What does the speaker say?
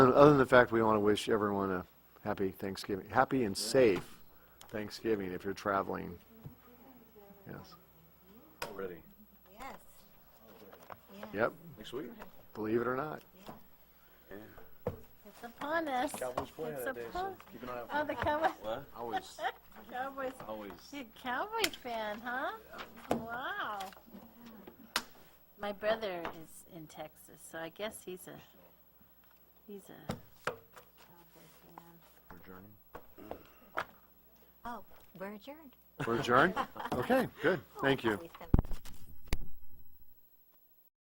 Other than the fact we want to wish everyone a happy Thanksgiving, happy and safe Thanksgiving if you're traveling. Yes. already. Yes. Yep, Next week? believe it or not. It's upon us. Cowboys play It's that day, so upon- keep an eye out. Oh, the Cowboys, What? Always, Cowboys, Always. you're a Cowboy fan, huh? Wow. My brother is in Texas, so I guess he's a, he's a Cowboy fan. Oh, we're adjourned. We're adjourned? Okay, good, thank you. Always have